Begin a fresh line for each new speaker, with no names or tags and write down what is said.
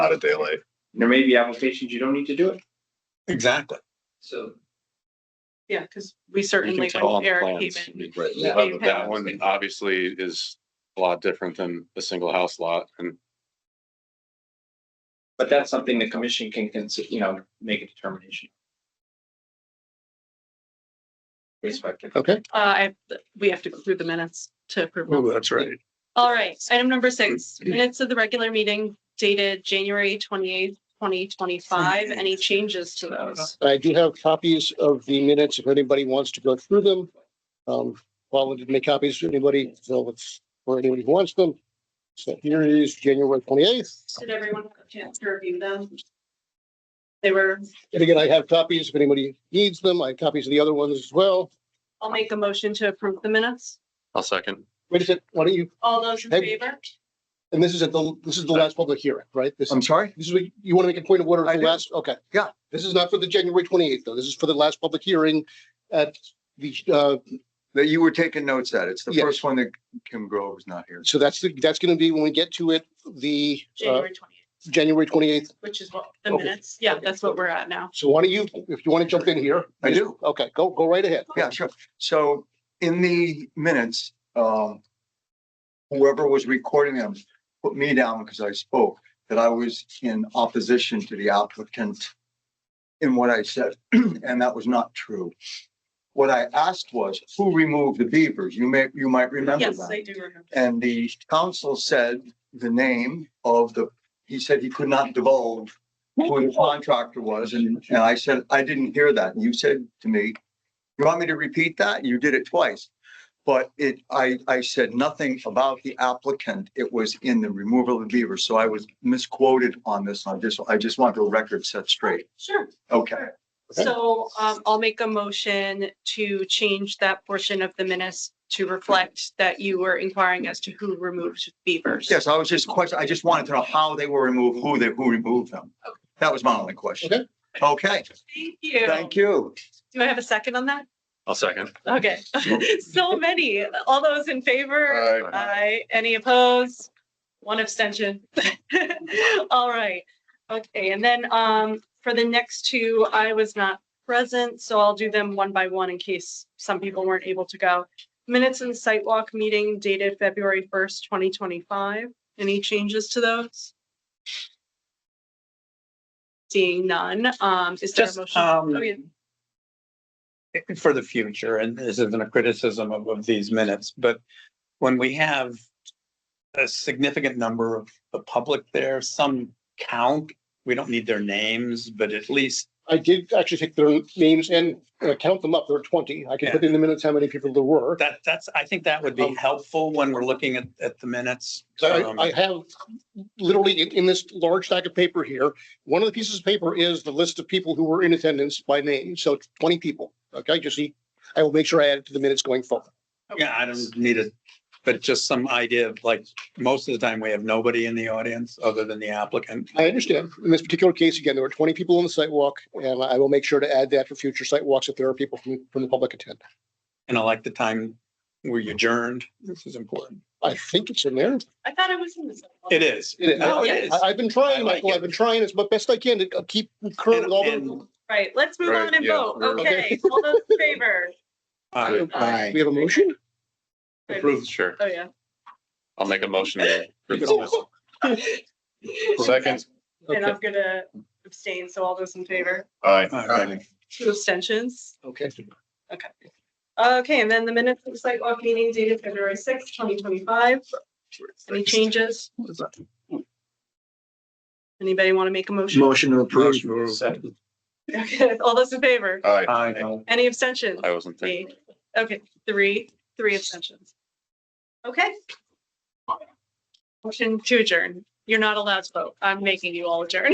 out a day late.
There may be applications you don't need to do it.
Exactly.
So.
Yeah, because we
You can
certainly,
tell on
when
the
Eric came
plans.
in,
Right.
Yeah.
Well, That one obviously is a lot different than a single house lot and
But that's something the commission can consider, you know, make a determination. Respect.
Okay.
uh, I, we have to go through the minutes to approve. them.
Oh, that's right.
All right, item number six, minutes of the regular meeting dated January twenty-eighth, twenty twenty-five. Any changes to those?
I do have copies of the minutes if anybody wants to go through them. Um, Paula did make copies for anybody, so it's for anybody who wants them. So here it is, January twenty-eighth.
Did everyone have a chance to review them? They were,
And again, I have copies if anybody needs them. I have copies of the other ones as well.
I'll make a motion to approve the minutes.
I'll second.
Wait a second, why don't you,
All those in
Hey.
uh,
favor?
and this is at the, this is the last public hearing, right? This
I'm
is,
sorry?
this is, what you want to make a point of order
I
at the
do.
last, okay.
Yeah.
This is not for the January twenty-eighth, though. This is for the last public hearing at the, uh,
That you were taking notes at. It's the
Yes.
first one that Kim Grove was not here.
so that's, the that's going to be when we get to it, the, uh,
January twenty-eighth,
January twenty-eighth
which is what,
oh.
the
Okay.
minutes. Yeah, that's what we're at now.
So why don't you, if you want to jump in here?
I do.
Okay, go, go right ahead.
Yeah, sure. So in the minutes, um, whoever was recording them put me down because I spoke, that I was in opposition to the applicant in what I said, and that was not true. What I asked was, who removed the beavers? You may, you might remember
Yes,
that.
I do remember.
And the council said the name of the, he said he could not divulge who the contractor was, and, and I said, I didn't hear that, and you said to me, you want me to repeat that? You did it twice. But it, I, I said nothing about the applicant, it was in the removal of the beaver, so I was misquoted on this, I just, I just want the record set straight,
Sure.
okay?
Okay.
So um, I'll make a motion to change that portion of the minutes to reflect that you were inquiring as to who removed beavers.
Yes, I was just question, I just wanted to know how they were removed, who they, who removed them.
Okay.
That was my only question. Okay,
Thank you.
thank you.
Do I have a second on that?
I'll second.
Okay, so many. All those in favor?
Aye.
Aye. Any opposed? One abstention. All right. Okay, and then um, for the next two, I was not present, so I'll do them one by one in case some people weren't able to go. Minutes and sidewalk meeting dated February first, twenty twenty-five. Any changes to those? Seeing none, um, is there a
Just,
motion? Oh, yeah.
um, for the future, and this isn't a criticism of, of these minutes, but when we have a significant number of the public there, some count, we don't need their names, but at least,
I did actually take their names and uh, count them up. There are twenty. I can put in the minutes how many people there were.
that, that's, I think that would be helpful when we're looking at, at the minutes.
Um, So
Um,
I, I have literally in, in this large stack of paper here, one of the pieces of paper is the list of people who were in attendance by name. So it's twenty people. Okay, just see, I will make sure I add it to the minutes going forward.
Yeah, I don't need it, but just some idea of like, most of the time we have nobody in the audience other than the applicant.
I understand. In this particular case, again, there were twenty people on the sidewalk and I will make sure to add that for future sidewalks if there are people from, from the public attend.
And I like the time we
Mm.
adjourned. This is important.
I think it's in there.
I thought I was in this. one.
It is.
It is.
No,
Yeah.
it is.
I, I've been
I
trying,
like
Michael,
it.
I've been trying as mu- best I can to uh, keep current with all
And-
the.
Right, let's move
Right,
on and
yeah,
vote.
we're-
Okay, all those in favor?
Uh,
We have a motion?
Approved, sure.
Oh, yeah.
I'll make a motion. to approve this.
Okay,
Second.
And I'm gonna abstain, so all those in favor,
Aye.
okay.
two abstentions.
Okay.
Okay, and then the minutes of the sidewalk meeting dated February sixth, twenty twenty-five. Any changes? Anybody want to make a motion?
Motion to approve.
Okay, all those in favor?
Aye.
I know.
Any abstentions?
I wasn't thinking.
Eight. Okay, three, three abstentions. Okay. Motion to adjourn. You're not allowed to vote. I'm making you all adjourn.